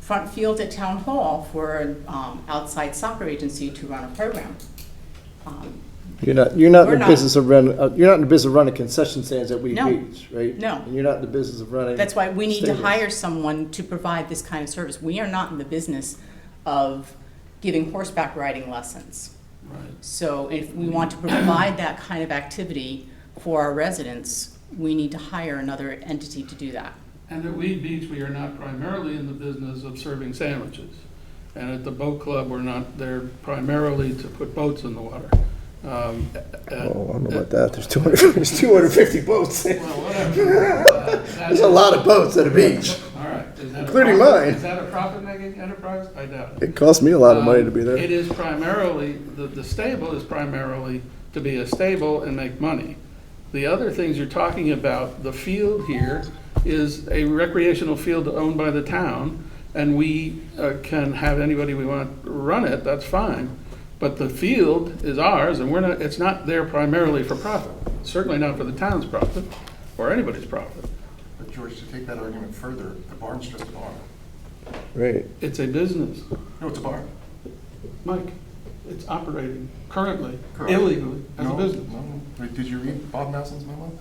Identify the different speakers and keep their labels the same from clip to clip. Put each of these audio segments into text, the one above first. Speaker 1: front field at Town Hall for an um, outside soccer agency to run a program. Um,
Speaker 2: You're not, you're not
Speaker 1: We're
Speaker 2: in the
Speaker 1: not.
Speaker 2: business of run, uh, you're not in the business of running concession stands at Wheat
Speaker 1: No.
Speaker 2: Beach, right?
Speaker 1: No.
Speaker 2: And you're not in the business of running.
Speaker 1: That's why we need to
Speaker 2: stadiums.
Speaker 1: hire someone to provide this kind of service. We are not in the business of giving horseback riding lessons. So if we want to provide that kind of activity for our residents, we need to hire another entity to do that.
Speaker 3: And at Weed Beach, we are not primarily in the business of serving sandwiches. And at the boat club, we're not there primarily to put boats in the water. Um, at- at-
Speaker 2: Oh, I don't know about that. There's 200, there's 250 boats.
Speaker 3: Well, whatever. Uh,
Speaker 2: There's a lot of boats at a beach.
Speaker 3: All right. Is that a
Speaker 2: Including
Speaker 3: profit-
Speaker 2: mine.
Speaker 3: Is that a profit-making enterprise? I doubt it.
Speaker 2: It costs me a lot of money to be
Speaker 3: Um, It
Speaker 2: there.
Speaker 3: is primarily, the, the stable is primarily to be a stable and make money. The other things you're talking about, the field here is a recreational field owned by the town, and we uh, can have anybody we want run it, that's fine. But the field is ours, and we're not, it's not there primarily for profit, certainly not for the town's profit, or anybody's profit.
Speaker 4: But George, to take that argument further, the barn's just a bar.
Speaker 2: Right.
Speaker 3: It's a business,
Speaker 4: No, it's a bar.
Speaker 3: Mike. It's operating currently
Speaker 4: Correct.
Speaker 3: illegally as a
Speaker 4: No,
Speaker 3: business.
Speaker 4: no. Wait, Did you read Bob Nelson's memo?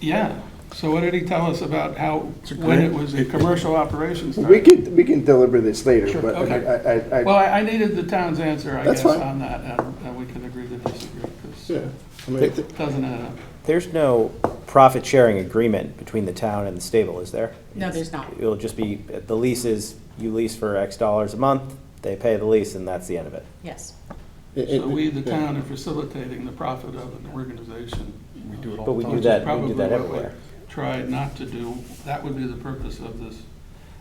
Speaker 3: Yeah, so what did he tell us about how,
Speaker 4: It's a
Speaker 3: when it
Speaker 4: great-
Speaker 3: was a commercial operations?
Speaker 2: We can, we can deliver this later,
Speaker 4: Sure.
Speaker 2: but
Speaker 3: Okay.
Speaker 2: I- I, I,
Speaker 3: Well,
Speaker 2: I,
Speaker 3: I I needed the town's answer, I
Speaker 2: That's
Speaker 3: guess,
Speaker 2: fine.
Speaker 3: on that, and and we could agree to disagree, because
Speaker 2: yeah.
Speaker 3: it
Speaker 2: I mean,
Speaker 3: doesn't add up.
Speaker 5: There's no profit sharing agreement between the town and the stable, is there?
Speaker 1: No, there's not.
Speaker 5: It'll just be, the lease is, you lease for X dollars a month, they pay the lease, and that's the end of it.
Speaker 1: Yes.
Speaker 2: it- it-
Speaker 3: So we, the
Speaker 2: yeah.
Speaker 3: town, are facilitating the profit of an organization.
Speaker 4: We do it all
Speaker 5: But we
Speaker 4: the time.
Speaker 5: do
Speaker 3: Which is
Speaker 5: that, we
Speaker 3: probably
Speaker 5: do that
Speaker 3: what
Speaker 5: everywhere.
Speaker 3: Try not to do, that would be the purpose of this.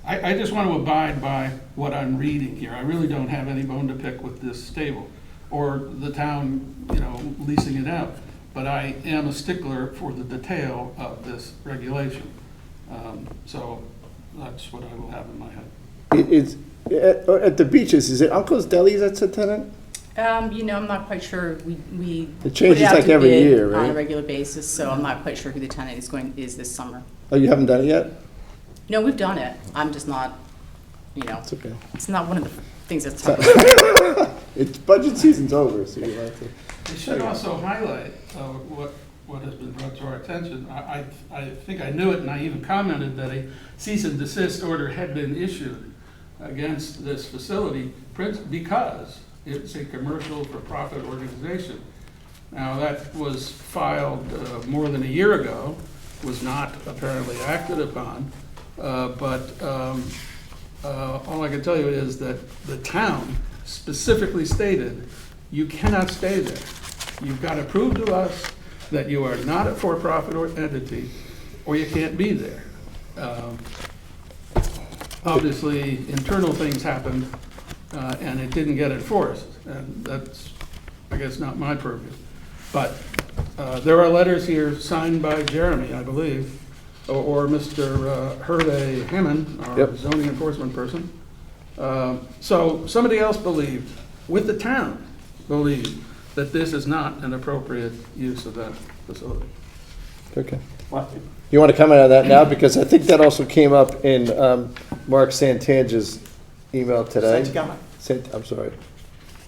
Speaker 3: I, I just want to abide by what I'm reading here. I really don't have any bone to pick with this stable or the town, you know, leasing it out. But I am a stickler for the detail of this regulation. Um, So that's what I will have in my head.
Speaker 2: It, it's, at, at the beaches, is it Uncle's Deli that's a tenant?
Speaker 1: Um, you know, I'm not quite sure, we, we.
Speaker 2: It changes
Speaker 1: put out
Speaker 2: like
Speaker 1: to
Speaker 2: every
Speaker 1: bid
Speaker 2: year,
Speaker 1: On a
Speaker 2: right?
Speaker 1: regular basis, so I'm not quite sure who the tenant is going, is this summer.
Speaker 2: Oh, you haven't done it yet?
Speaker 1: No, we've done it, I'm just not, you know,
Speaker 2: It's okay.
Speaker 1: it's not one of the things that's talked about.
Speaker 2: It's, budget season's over, so you have to.
Speaker 3: I should also highlight uh, what, what has been brought to our attention. I, I- I think I knew it, and I even commented that a cease and desist order had been issued against this facility prin- because it's a commercial for-profit organization. Now, that was filed uh, more than a year ago, was not apparently acted upon, uh, but um, uh, all I can tell you is that the town specifically stated, you cannot stay there. You've got to prove to us that you are not a for-profit or entity, or you can't be there. Um, Obviously, internal things happened, uh, and it didn't get enforced, and that's, I guess, not my purview. But uh, there are letters here signed by Jeremy, I believe, or- or Mr. Hervey Hammond, our
Speaker 2: Yep.
Speaker 3: zoning enforcement person. Um, So somebody else believed, with the town, believed that this is not an appropriate use of that facility.
Speaker 2: Okay. You want to comment on that now? Because I think that also came up in um, Mark Santange's email today.
Speaker 5: Santagama.
Speaker 2: Sant- I'm sorry.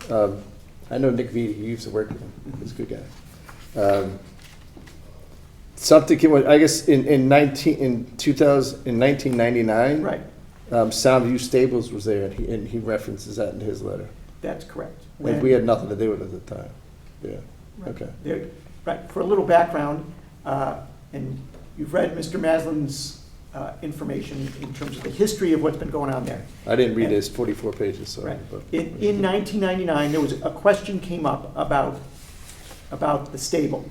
Speaker 2: Um, I know Nick Vitti, he used to work with him, he's a good guy. Um, Something, came with- I guess, in in 19, in 2000, in 1999.
Speaker 6: Right,
Speaker 2: um, Soundview Stables was there, and he and he references that in his letter.
Speaker 6: that's correct.
Speaker 2: And we had nothing to do with it at the time. Yeah,
Speaker 6: Right.
Speaker 2: okay.
Speaker 6: There- Right, for a little background, uh, and you've read Mr. Maslin's uh, information in terms of the history of what's been going on there.
Speaker 2: I didn't read
Speaker 6: And-
Speaker 2: his 44 pages, so.
Speaker 6: Right. In, in
Speaker 2: Yeah.
Speaker 6: 1999, there was, a question came up about, about the stable.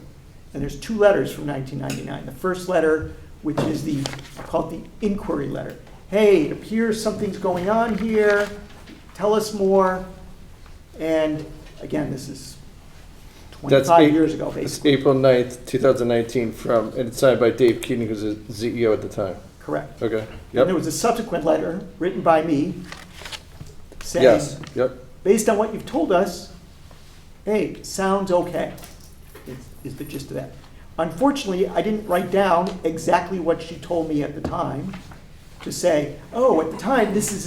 Speaker 6: And there's two letters from 1999. The first letter, which is the, called the inquiry letter. Hey, it appears something's going on here, tell us more. And again, this is
Speaker 2: That's
Speaker 6: 25
Speaker 2: eight-
Speaker 6: years ago,
Speaker 2: It's
Speaker 6: basically.
Speaker 2: April 9th, 2019, from, and it's signed by Dave Keating, who's the CEO at the time.
Speaker 6: Correct.
Speaker 2: Okay,
Speaker 6: And there
Speaker 2: yep,
Speaker 6: was a subsequent letter written by me saying,
Speaker 2: yes, yep.
Speaker 6: based on what you've told us, hey, sounds okay, is- is the gist of that. Unfortunately, I didn't write down exactly what she told me at the time to say, oh, at the time, this is